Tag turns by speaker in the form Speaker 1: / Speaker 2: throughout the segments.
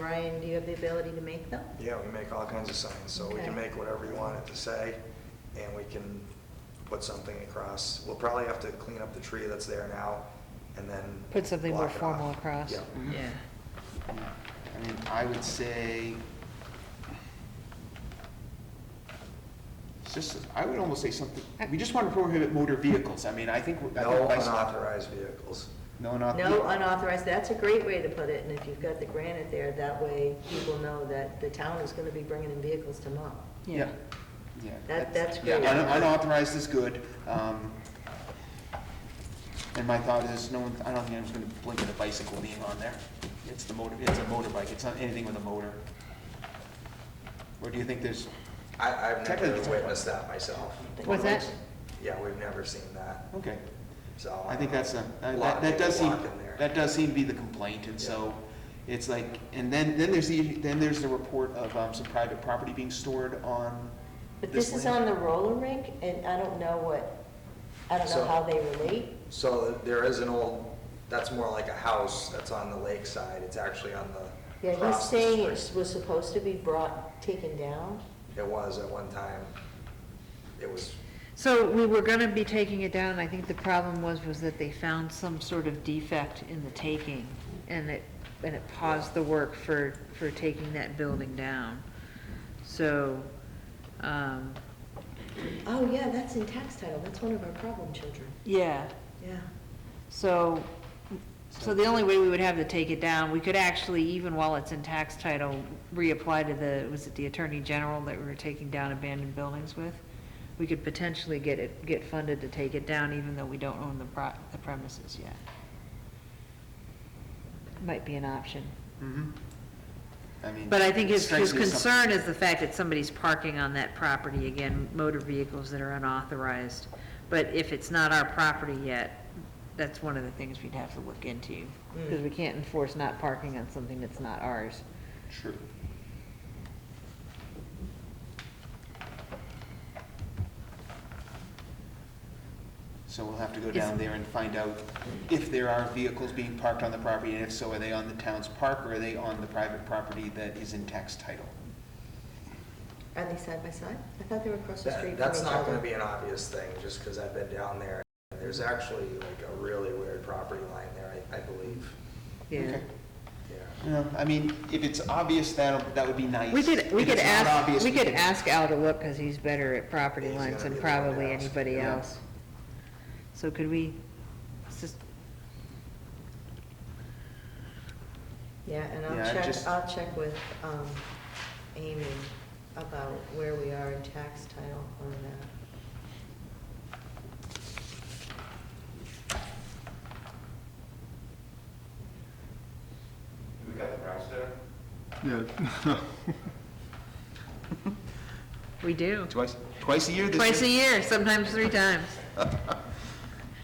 Speaker 1: Ryan, do you have the ability to make them?
Speaker 2: Yeah, we make all kinds of signs, so we
Speaker 1: Okay.
Speaker 2: can make whatever you want it to say, and we can put something across. We'll probably have to clean up the tree that's there now, and then.
Speaker 3: Put something more
Speaker 2: block it off.
Speaker 3: formal across. Mm.
Speaker 2: Yeah,
Speaker 1: Yeah.
Speaker 4: I mean, I would say, it's just, I would almost say something, we just want to prohibit motor vehicles. I mean, I think. I think
Speaker 2: no
Speaker 4: bicycle-
Speaker 2: unauthorized vehicles.
Speaker 4: No unauthorized.
Speaker 1: No unauthorized, that's a great way to put it, and if you've got the granite there, that way people know that the town is gonna be bringing in vehicles to mow.
Speaker 4: Yeah, yeah.
Speaker 1: That- that's
Speaker 4: yeah,
Speaker 1: great.
Speaker 4: un- Unauthorized is good. um, And my thought is, no one, I don't think anyone's gonna blink at a bicycle being on there. It's the motor, it's a motorbike, it's not anything with a motor. Or do you think there's,
Speaker 2: I, I've
Speaker 4: Technically,
Speaker 2: never
Speaker 4: it's-
Speaker 2: witnessed that myself.
Speaker 3: What's that?
Speaker 2: Yeah, we've never seen that,
Speaker 4: okay,
Speaker 2: so.
Speaker 4: I think that's a,
Speaker 2: A
Speaker 4: that-
Speaker 2: lot
Speaker 4: that,
Speaker 2: of
Speaker 4: that
Speaker 2: people
Speaker 4: does seem,
Speaker 2: walk in there.
Speaker 4: that does seem to be the complaint, and so it's like, and then, then there's the, then there's the report of um, some private property being stored on
Speaker 1: But this is on
Speaker 4: land.
Speaker 1: the roller rink, and I don't know what, I don't know
Speaker 2: So-
Speaker 1: how they relate.
Speaker 2: So there is an old, that's more like a house that's on the lakeside, it's actually on the.
Speaker 1: Yeah, he's
Speaker 2: across the
Speaker 1: saying
Speaker 2: street.
Speaker 1: it was supposed to be brought, taken down.
Speaker 2: It was at one time. It was,
Speaker 3: So we were gonna be taking it down, I think the problem was, was that they found some sort of defect in the taking, and it, and it paused the work for, for taking that building down. So, um,
Speaker 1: Oh, yeah, that's in tax title, that's one of our problem children,
Speaker 3: yeah,
Speaker 1: yeah.
Speaker 3: So, so the only way we would have to take it down, we could actually, even while it's in tax title, reapply to the, was it the Attorney General that we were taking down abandoned buildings with? We could potentially get it, get funded to take it down even though we don't own the pro, the premises yet. Might be an option.
Speaker 4: Mhm. I mean.
Speaker 3: But I think his,
Speaker 4: strikes
Speaker 3: his
Speaker 4: me as something-
Speaker 3: concern is the fact that somebody's parking on that property, again, motor vehicles that are unauthorized. But if it's not our property yet, that's one of the things we'd have to look into, because we can't enforce not parking on something that's not ours.
Speaker 4: True. So we'll have to go
Speaker 3: Is-
Speaker 4: down there and find out if there are vehicles being parked on the property, and if so, are they on the town's park, or are they on the private property that is in tax title?
Speaker 1: Are they side by side? I thought they were across the street
Speaker 2: that-
Speaker 1: from
Speaker 2: that's
Speaker 1: each
Speaker 2: not
Speaker 1: other.
Speaker 2: gonna be an obvious thing, just because I've been down there. There's actually like a really weird property line there, I, I believe.
Speaker 3: Yeah.
Speaker 4: Okay.
Speaker 2: Yeah.
Speaker 4: You know, I mean, if it's obvious, that, that would be nice.
Speaker 3: We could, we
Speaker 4: If
Speaker 3: could
Speaker 4: it's not obvious,
Speaker 3: ask, we could
Speaker 4: can-
Speaker 3: ask Al to look, because he's better at property
Speaker 2: He's
Speaker 3: lines
Speaker 2: gonna
Speaker 3: than
Speaker 2: be the one that
Speaker 3: probably
Speaker 2: asks,
Speaker 3: anybody
Speaker 4: yeah.
Speaker 3: else. So could we, it's just,
Speaker 1: Yeah, and
Speaker 4: Yeah, I
Speaker 1: I'll check,
Speaker 4: just-
Speaker 1: I'll check with, um, Amy about where we are in tax title on that.
Speaker 5: We got the price there?
Speaker 6: Yeah.
Speaker 3: we do.
Speaker 4: Twice, twice a year this
Speaker 3: Twice a
Speaker 4: year?
Speaker 3: year, sometimes three times.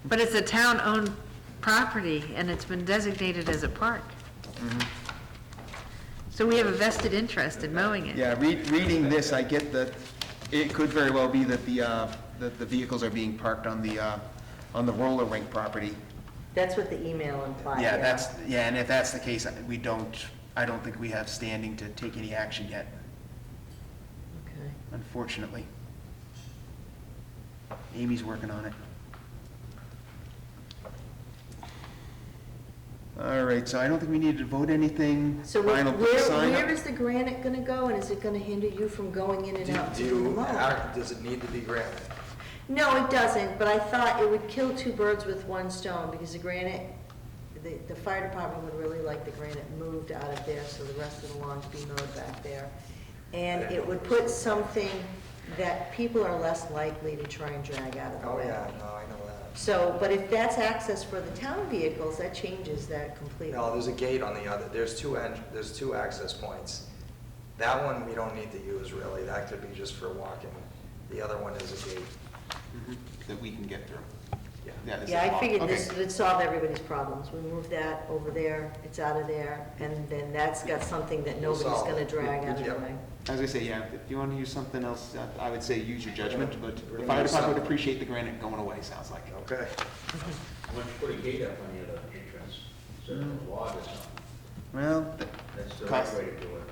Speaker 3: But it's a town-owned property, and it's been designated as a park. So we have a vested interest in mowing it.
Speaker 4: Yeah, read, reading this, I get that it could very well be that the, uh, that the vehicles are being parked on the, uh, on the roller rink property.
Speaker 1: That's what the email implied, yeah.
Speaker 4: Yeah, that's, yeah, and if that's the case, I- we don't, I don't think we have standing to take any action yet,
Speaker 1: Okay.
Speaker 4: unfortunately. Amy's working on it. All right, so I don't think we need to vote anything.
Speaker 1: So where,
Speaker 4: Final
Speaker 1: where
Speaker 4: sign up.
Speaker 1: where is the granite gonna go, and is it gonna hinder you from going in and
Speaker 2: Do
Speaker 1: out
Speaker 2: do
Speaker 1: to do the
Speaker 2: you,
Speaker 1: mow?
Speaker 2: how- does it need to be granite?
Speaker 1: No, it doesn't, but I thought it would kill two birds with one stone, because the granite, the, the fire department would really like the granite moved out of there, so the rest of the lawn could be mowed back there. And it would put something that people are less likely to try and drag out of the
Speaker 2: Oh,
Speaker 1: way.
Speaker 2: yeah, no, I know that.
Speaker 1: So, but if that's access for the town vehicles, that changes that completely.
Speaker 2: No, there's a gate on the other, there's two en, there's two access points. That one we don't need to use really, that could be just for walking. The other one is a gate,
Speaker 4: Mhm, That we can get through.
Speaker 2: yeah.
Speaker 4: this is
Speaker 1: Yeah, I
Speaker 4: locked.
Speaker 1: figured
Speaker 4: Okay.
Speaker 1: this would solve everybody's problems. We move that over there, it's out of there, and then that's got something that
Speaker 2: We'll
Speaker 1: nobody's
Speaker 2: solve
Speaker 1: gonna
Speaker 2: it.
Speaker 1: drag out of the
Speaker 2: Yeah.
Speaker 1: way.
Speaker 4: As I say, yeah, if you want to use something else, I- I would say use your judgment, but
Speaker 2: We're gonna use
Speaker 4: the fire department
Speaker 2: something.
Speaker 4: would appreciate the granite going away, sounds like.
Speaker 2: Okay,
Speaker 5: Why don't you put a gate up on the other entrance, so there's a log or something?
Speaker 4: Well, th-
Speaker 5: That's the
Speaker 4: Cost-
Speaker 5: right way to do it.